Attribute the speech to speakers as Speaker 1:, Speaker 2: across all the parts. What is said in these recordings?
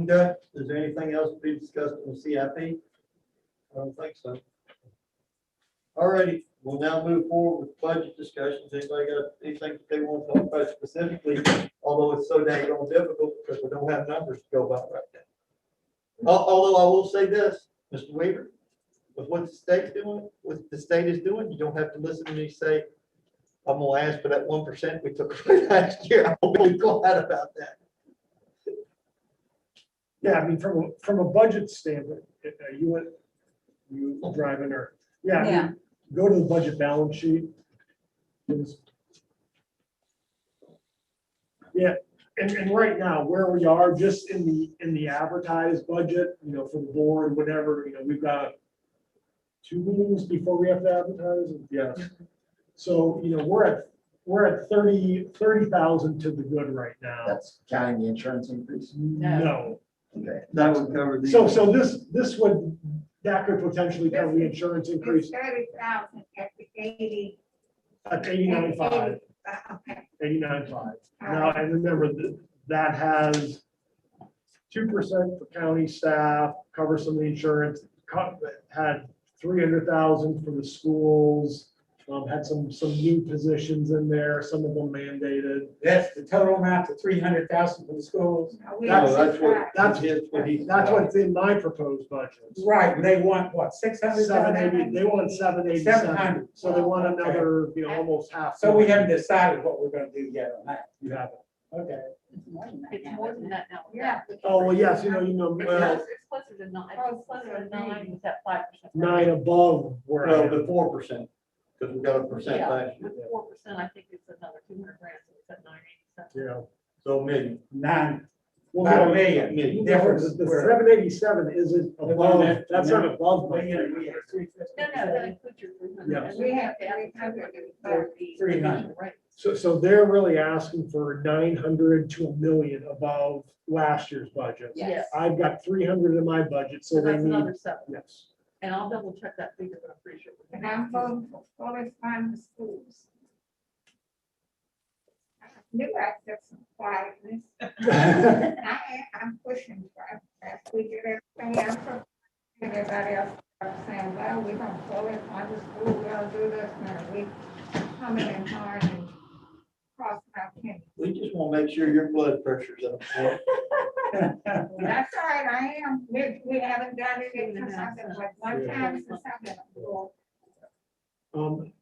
Speaker 1: Okay, is there anything else to be discussed in the CIP? I don't think so. All righty, we'll now move forward with budget discussions. Anybody got anything that they want to talk about specifically? Although it's so dang on difficult because we don't have numbers to go by right now. Al- Although I will say this, Mr. Weaver, with what the state's doing, what the state is doing, you don't have to listen to me say, I'm gonna ask for that one percent we took away last year. I'll be glad about that.
Speaker 2: Yeah, I mean, from, a from a budget standpoint, uh, you went, you driving or, yeah, I mean,
Speaker 3: Yeah,
Speaker 2: go to the budget balance sheet. It's- Yeah, and, and right now, where we are, just in the, in the advertised budget, you know, for the board, whatever, you know, we've got two meetings before we have to advertise, yes. So, you know, we're at, we're at thirty, thirty thousand to the good right now.
Speaker 4: That's counting the insurance increase.
Speaker 2: No,
Speaker 4: Okay.
Speaker 1: That would cover the.
Speaker 2: so, so this, this would, that could potentially cover the insurance
Speaker 5: It's
Speaker 2: increase
Speaker 5: thirty thousand at the eighty. uh,
Speaker 2: at eighty-nine five.
Speaker 5: Okay,
Speaker 2: eighty-nine five. Now, and remember, th- that has two percent for county staff, cover some of the insurance, co- had three hundred thousand for the schools, um, had some, some new positions in there, some of them mandated.
Speaker 6: That's the total amount to three hundred thousand for the schools.
Speaker 5: now we
Speaker 1: No,
Speaker 5: have
Speaker 1: that's what,
Speaker 5: five.
Speaker 1: that's his, what he.
Speaker 2: That's what's in my proposed budget.
Speaker 6: Right, but they want what, six hundred
Speaker 2: Seven
Speaker 6: thousand?
Speaker 2: eighty, they want seven eighty-seven,
Speaker 6: 700.
Speaker 2: so they want another, you know, almost half.
Speaker 6: So we haven't decided what we're gonna do yet on that.
Speaker 2: You have it.
Speaker 6: Okay.
Speaker 3: it's more than that now.
Speaker 5: Yeah.
Speaker 2: Oh, well, yes, you know, you know, uh,
Speaker 3: No,
Speaker 2: well,
Speaker 3: It's it's closer to nine, it's closer to nine with that five percent.
Speaker 2: nine above where I
Speaker 1: Well,
Speaker 2: am.
Speaker 1: the four percent, because we got a percent last year,
Speaker 3: Four percent, I think it's another two hundred grand, so it's at nine eighty
Speaker 2: Yeah.
Speaker 1: so a million.
Speaker 6: Nine,
Speaker 2: Well,
Speaker 6: about a
Speaker 2: no,
Speaker 6: million.
Speaker 1: Million.
Speaker 6: Difference
Speaker 2: The
Speaker 6: where-
Speaker 2: seven eighty-seven isn't above,
Speaker 6: that-
Speaker 2: that's not above my
Speaker 6: Million, we
Speaker 2: three
Speaker 6: have
Speaker 2: hundred.
Speaker 6: three fifty.
Speaker 3: seven. No, no, that includes your three
Speaker 2: Yes.
Speaker 3: hundred.
Speaker 5: We have three hundred and thirty.
Speaker 6: Three hundred.
Speaker 3: Right.
Speaker 2: So, so they're really asking for nine hundred to a million above last year's budget.
Speaker 3: Yes.
Speaker 2: I've got three hundred in my budget, so
Speaker 3: So
Speaker 2: they
Speaker 3: that's
Speaker 2: need,
Speaker 3: another seven,
Speaker 2: yes.
Speaker 3: and I'll double check that figure, but I'm pretty sure.
Speaker 5: And I'm voting for fully funded schools. I Knew I said some quietness. I, I'm pushing for, as we get everything else. Everybody else starts saying, well, we don't fully fund the school, we don't do this, now we coming in hard and crossing our fingers.
Speaker 1: We just want to make sure your blood pressure's up.
Speaker 5: That's all right, I am, we, we haven't done it in something like one time since I've been aboard.
Speaker 2: Um,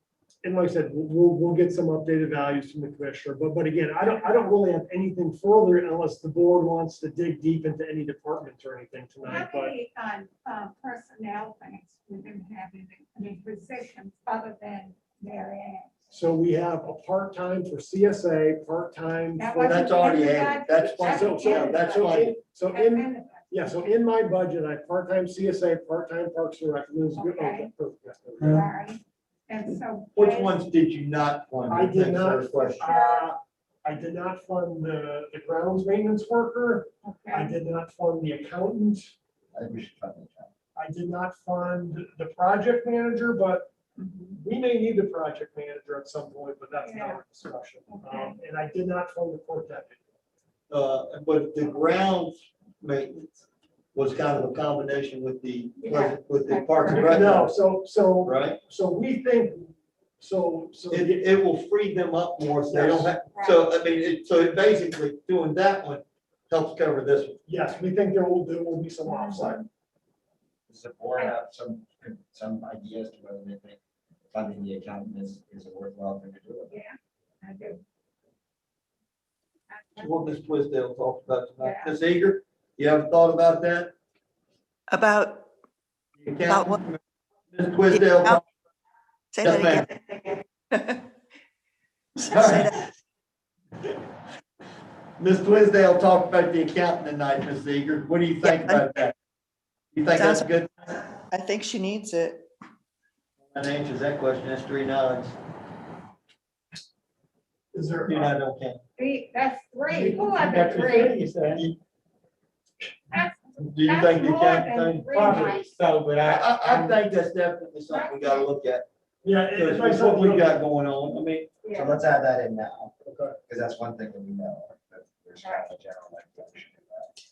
Speaker 2: and like I said, we'll- we'll, we'll get some updated values from the commissioner, but, but again, I don't, I don't really have anything further unless the board wants to dig deep into any departments or anything tonight,
Speaker 5: How
Speaker 2: but.
Speaker 5: many um, uh, personnel things we've been having, I mean, positions other than Mary Ann?
Speaker 2: So we have a part-time for CSA, part-time
Speaker 5: That
Speaker 2: for,
Speaker 5: was-
Speaker 1: That's already added, that's why,
Speaker 2: so, so,
Speaker 1: yeah, that's
Speaker 2: so
Speaker 1: why,
Speaker 2: in, so
Speaker 5: And
Speaker 2: in,
Speaker 5: then-
Speaker 2: yeah, so in my budget, I have part-time CSA, part-time Parks and Rec. Liz, good- oh,
Speaker 5: Okay.
Speaker 2: perfect, that's what we got.
Speaker 5: Sorry. And so.
Speaker 1: which
Speaker 5: Jay-
Speaker 1: ones did you not fund?
Speaker 2: I did not-
Speaker 1: First question.
Speaker 2: Uh, I did not fund the, the grounds maintenance worker, I
Speaker 5: Okay,
Speaker 2: did not fund the accountant,
Speaker 4: I think we should find that out.
Speaker 2: I did not fund the project manager, but
Speaker 3: Mm-hmm.
Speaker 2: we may need the project manager at some point, but that's not our discussion. Um, And I did not fund the court deputy.
Speaker 1: Uh, but the grounds maintenance was kind of a combination with the, with the park and rec,
Speaker 2: No, so, so
Speaker 1: right?
Speaker 2: So we think, so, so,
Speaker 1: It, it will free them up more, so they don't have, so, I mean, it, so it basically, doing that one helps cover this one.
Speaker 2: yes, we think there will, there will be some offside.
Speaker 4: Does the board have some, some ideas to whether they think funding the accountant is, is a worthwhile thing to do?
Speaker 5: Yeah, I do. I-
Speaker 1: What Ms. Twisdale talked about tonight. Ms. Eager, you haven't thought about that?
Speaker 7: About,
Speaker 1: You
Speaker 7: About what?
Speaker 1: can't- Ms. Twisdale.
Speaker 7: Yeah. say
Speaker 1: Yes, ma'am.
Speaker 7: that again. Say
Speaker 1: Sorry.
Speaker 7: that-
Speaker 1: Ms. Twisdale talked about the accountant tonight, Ms. Eager. What do you think
Speaker 7: Yeah.
Speaker 1: about that? You think that's
Speaker 7: Sounds-
Speaker 1: good?
Speaker 7: I think she needs it.
Speaker 1: That answers that question. That's three nods.
Speaker 2: Is there,
Speaker 1: You know, okay.
Speaker 5: Three, that's three, who are
Speaker 6: That's
Speaker 5: the
Speaker 6: the
Speaker 5: three?
Speaker 6: three, so-
Speaker 5: That's
Speaker 1: Do you
Speaker 5: That's
Speaker 1: think the
Speaker 5: more
Speaker 1: accountant
Speaker 5: than
Speaker 1: thing?
Speaker 5: three
Speaker 6: Probably so, but
Speaker 1: I,
Speaker 6: I.
Speaker 1: I, I think that's definitely something we gotta look at.
Speaker 2: yeah, it-
Speaker 1: Because
Speaker 2: it's like
Speaker 1: with what
Speaker 2: something
Speaker 1: we
Speaker 2: we got.
Speaker 1: got going on, I mean,
Speaker 4: So
Speaker 5: yeah.
Speaker 4: let's add that in now,
Speaker 2: Okay.
Speaker 4: because that's one thing that we know, that there's kind of a general. like, function in that.